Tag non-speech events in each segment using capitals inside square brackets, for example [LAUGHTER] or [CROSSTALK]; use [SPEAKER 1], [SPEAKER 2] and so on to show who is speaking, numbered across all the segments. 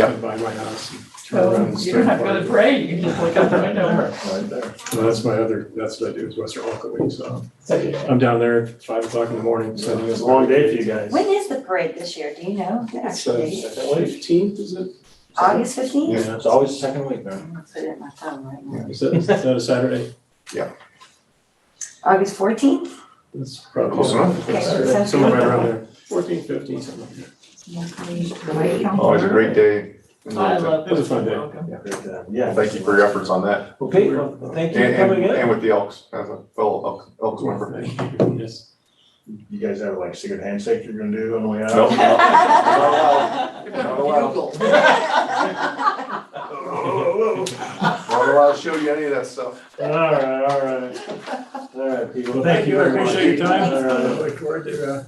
[SPEAKER 1] Yeah. By my house. and turn around and
[SPEAKER 2] So Oh, you don't have to go
[SPEAKER 1] straight
[SPEAKER 2] to the parade, you can just look out the [LAUGHS] window.
[SPEAKER 1] Right there. Well, that's my other, that's what I do, is Western Oklahoma, so
[SPEAKER 2] So you-
[SPEAKER 1] I'm down there at five o'clock in the morning, so
[SPEAKER 3] It was a long day for you guys.
[SPEAKER 4] When is the parade this year? Do you know? the actual date?
[SPEAKER 1] Fifteenth, is it?
[SPEAKER 4] August fifteenth?
[SPEAKER 1] Yeah,
[SPEAKER 3] It's always the second week, man.
[SPEAKER 4] I'm gonna put it in my phone right now.
[SPEAKER 1] is that, is that a Saturday?
[SPEAKER 4] August fourteenth?
[SPEAKER 1] That's probably.
[SPEAKER 5] Close enough.
[SPEAKER 4] Okay,
[SPEAKER 1] Saturday,
[SPEAKER 4] sounds
[SPEAKER 1] Somewhere
[SPEAKER 4] good.
[SPEAKER 1] right around there, fourteen, fifteen, something like that.
[SPEAKER 5] Always a Oh, great day.
[SPEAKER 3] Oh,
[SPEAKER 2] I love.
[SPEAKER 1] It was a fun day.
[SPEAKER 6] [LAUGHS]
[SPEAKER 2] Welcome.
[SPEAKER 3] Great time. Yeah.
[SPEAKER 5] Thank you for your efforts on that.
[SPEAKER 3] Okay, well, thank
[SPEAKER 5] And,
[SPEAKER 3] you for coming
[SPEAKER 5] and,
[SPEAKER 3] in.
[SPEAKER 5] and with the Elks, as a fellow Elks, Elks member.
[SPEAKER 1] Thank you. Yes.
[SPEAKER 7] You guys have like secret handshake you're gonna do on the way out?
[SPEAKER 5] No.
[SPEAKER 3] [LAUGHS]
[SPEAKER 5] [LAUGHS] Not allowed,
[SPEAKER 7] Oh, oh, oh,
[SPEAKER 5] not allowed to show you any of that stuff.
[SPEAKER 3] All right, all right. All right, people.
[SPEAKER 1] Well, thank you, I
[SPEAKER 3] very much.
[SPEAKER 1] appreciate your time,
[SPEAKER 3] All
[SPEAKER 1] and I
[SPEAKER 3] right.
[SPEAKER 1] look forward to, uh,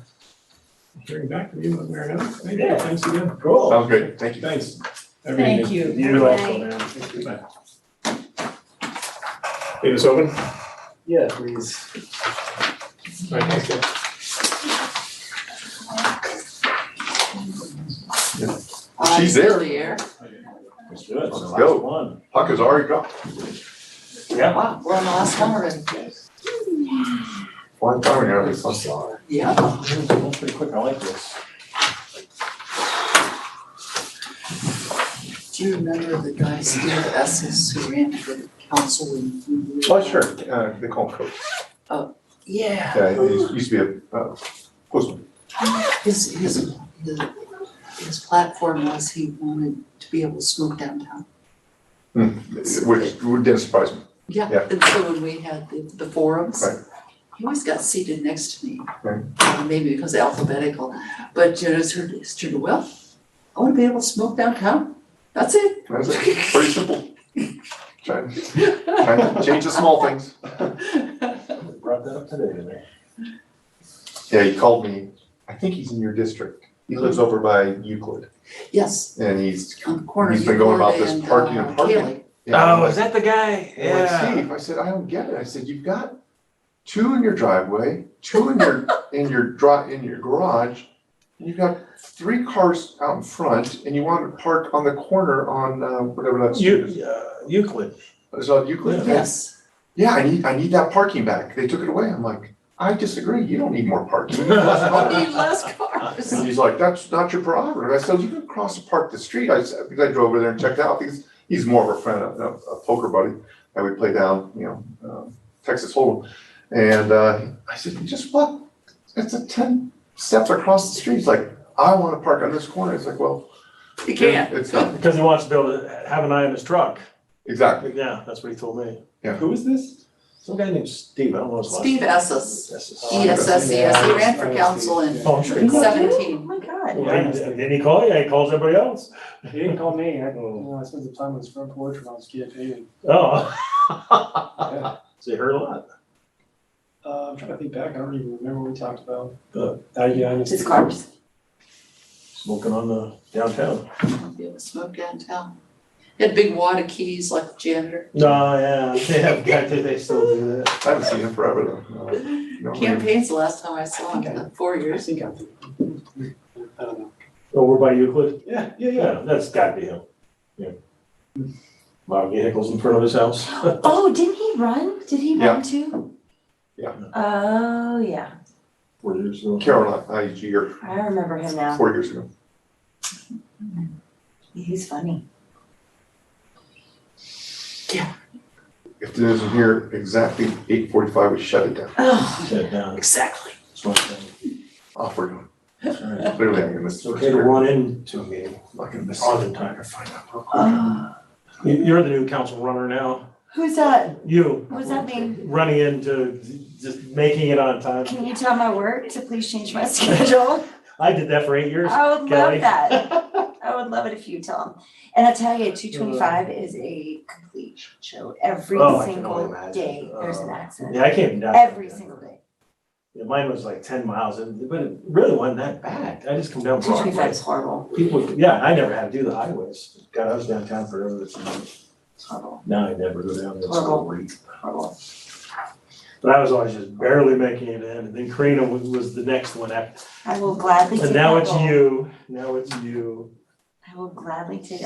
[SPEAKER 1] hearing back from you when we're out. Thank you,
[SPEAKER 3] Yeah.
[SPEAKER 1] thanks again,
[SPEAKER 3] Cool.
[SPEAKER 5] Sounds great. Thank you.
[SPEAKER 1] thanks.
[SPEAKER 2] Thank you.
[SPEAKER 7] oh. You also, man.
[SPEAKER 1] Leave this open?
[SPEAKER 3] Yeah, please.
[SPEAKER 1] Right, thanks, guys.
[SPEAKER 5] She's there.
[SPEAKER 3] Let's do it.
[SPEAKER 5] Let's
[SPEAKER 3] Last
[SPEAKER 5] go.
[SPEAKER 3] One.
[SPEAKER 5] Puck is already gone.
[SPEAKER 3] Yeah.
[SPEAKER 6] Wow, we're on the last one already.
[SPEAKER 5] One time ago, it's
[SPEAKER 6] Yeah.
[SPEAKER 3] That's pretty quick. I like this.
[SPEAKER 6] Do you remember the guys here at Essex who ran for the council in?
[SPEAKER 5] Oh, sure. Uh, they call him Coach.
[SPEAKER 6] Yeah.
[SPEAKER 5] Yeah, he used to be a, uh, postman.
[SPEAKER 6] His, his, the, his platform was he wanted to be able to smoke downtown.
[SPEAKER 5] Which didn't surprise me. Yeah.
[SPEAKER 6] Yeah, and so when we had the, the forums,
[SPEAKER 5] Right.
[SPEAKER 6] he always got seated next to me.
[SPEAKER 5] Right.
[SPEAKER 6] Uh, Maybe because alphabetical, but you know, it's sort of, it's sort of, well, I want to be able to smoke downtown. That's it.
[SPEAKER 5] That's it. Pretty simple. Trying, trying to [LAUGHS] change the small things.
[SPEAKER 3] We Brought that up today, didn't we?
[SPEAKER 5] Yeah, he called me. I think he's in your district. He lives over by Euclid
[SPEAKER 6] Yes,
[SPEAKER 5] and he's.
[SPEAKER 6] on the corner of
[SPEAKER 5] He's been going about
[SPEAKER 6] Euclid
[SPEAKER 5] this
[SPEAKER 6] and,
[SPEAKER 5] parking and
[SPEAKER 6] uh,
[SPEAKER 5] parking.
[SPEAKER 6] Cayley.
[SPEAKER 3] Oh, is that the guy?
[SPEAKER 5] I'm like, Steve, I said, I don't get it. I said, you've got two in your driveway, two in your, in your dri- in your garage. And you've got three cars out in front and you want to park on the corner on, uh, whatever that street is.
[SPEAKER 3] You, uh, Euclid.
[SPEAKER 5] Is that Euclid?
[SPEAKER 6] Yes.
[SPEAKER 5] Yeah, I need, I need that parking back. They took it away. I'm like, I disagree. You don't need more parking. You need less
[SPEAKER 6] We
[SPEAKER 5] parking."
[SPEAKER 6] need less cars.
[SPEAKER 5] [LAUGHS] And he's like, that's not your prerogative. I said, you can cross the park the street. I said, because I drove over there and checked it out, because he's more of a friend, a, a poker buddy. And we play down, you know, um, Texas Hold'em. And, uh, I said, you just what? It's a ten steps across the street. He's like, I wanna park on this corner. It's like, well.
[SPEAKER 6] You can't.
[SPEAKER 5] It's not,
[SPEAKER 3] Because he wants to be able to have an eye on his truck.
[SPEAKER 5] exactly.
[SPEAKER 3] Yeah, that's what he told me.
[SPEAKER 5] Yeah.
[SPEAKER 3] Who is this? Some guy named Steve. I don't know his last name.
[SPEAKER 6] Steve Esses,
[SPEAKER 3] Esses.
[SPEAKER 6] E S S E S, he ran for council in
[SPEAKER 3] Oh, I'm sure he called.
[SPEAKER 4] Oh
[SPEAKER 6] seventeen.
[SPEAKER 4] my God.
[SPEAKER 3] Yeah, he- Didn't he call you? He calls everybody else.
[SPEAKER 8] He didn't call me, I, you know, I spent the time on his front porch when I was a kid painting.
[SPEAKER 3] Oh. So you heard a lot.
[SPEAKER 8] Uh, I'm trying to think back, I don't even remember what we talked about.
[SPEAKER 3] Uh,
[SPEAKER 8] Uh, yeah, I
[SPEAKER 4] It's
[SPEAKER 8] just,
[SPEAKER 4] cars.
[SPEAKER 3] Smoking on the downtown.
[SPEAKER 6] Be able to smoke downtown. He Had big wad of keys like a janitor.
[SPEAKER 3] No, [LAUGHS] yeah, they have, got to- they still do that.
[SPEAKER 5] I haven't seen him forever though. Uh, no,
[SPEAKER 6] Campaign's the last time I saw him, in four
[SPEAKER 8] I
[SPEAKER 6] years.
[SPEAKER 8] think I, I don't know.
[SPEAKER 3] Over Oh, by Euclid?
[SPEAKER 8] Yeah, yeah, yeah.
[SPEAKER 3] Yeah, that's got to be him. Yeah. Lot of vehicles in front of his house.
[SPEAKER 4] Oh, didn't he run? Did he
[SPEAKER 5] Yeah.
[SPEAKER 4] run too?
[SPEAKER 5] Yeah.
[SPEAKER 4] Oh, yeah.
[SPEAKER 3] Four years ago.
[SPEAKER 5] Carolina, I, a year,
[SPEAKER 4] I remember him now.
[SPEAKER 5] four years ago.
[SPEAKER 4] He's funny.
[SPEAKER 5] If it isn't here exactly eight forty-five, we shut it down.
[SPEAKER 4] Oh,
[SPEAKER 3] Sit down.
[SPEAKER 6] Exactly.
[SPEAKER 3] smoke down.
[SPEAKER 5] Off we're going.
[SPEAKER 3] It's all right.
[SPEAKER 5] Clearly, I'm gonna miss.
[SPEAKER 3] It's okay to run into a meeting, like in the Ogden time, or find out real quick. You- You're the new council runner now.
[SPEAKER 4] oh. who's that?
[SPEAKER 3] You,
[SPEAKER 4] What does that mean?
[SPEAKER 3] running into, just making it on time.
[SPEAKER 4] Can you tell my work to please change my [LAUGHS] schedule?
[SPEAKER 3] I did that for eight years.
[SPEAKER 4] I would
[SPEAKER 3] Kelly.
[SPEAKER 4] love that. I would love it if you tell him. And I tell you, two twenty-five is a complete shit show. Every
[SPEAKER 3] Oh, I can only
[SPEAKER 4] single
[SPEAKER 3] imagine.
[SPEAKER 4] day, there's an
[SPEAKER 3] Uh,
[SPEAKER 4] accident.
[SPEAKER 3] Yeah, I came down.
[SPEAKER 4] Every single day.
[SPEAKER 3] Yeah, Mine was like ten miles, and but it really wasn't that bad. I just come down
[SPEAKER 4] Two twenty-five
[SPEAKER 3] Broadway.
[SPEAKER 4] is horrible.
[SPEAKER 3] People, yeah, I never had to do the highways. God, I was downtown forever. That's-
[SPEAKER 4] It's horrible,
[SPEAKER 3] Now I never go down this
[SPEAKER 4] Horrible.
[SPEAKER 3] street.
[SPEAKER 4] horrible.
[SPEAKER 3] But I was always just barely making it in, and then Karina was, was the next one after.
[SPEAKER 4] I will gladly take
[SPEAKER 3] And
[SPEAKER 4] that
[SPEAKER 3] now it's
[SPEAKER 4] role.
[SPEAKER 3] you. Now it's you.
[SPEAKER 4] I will gladly take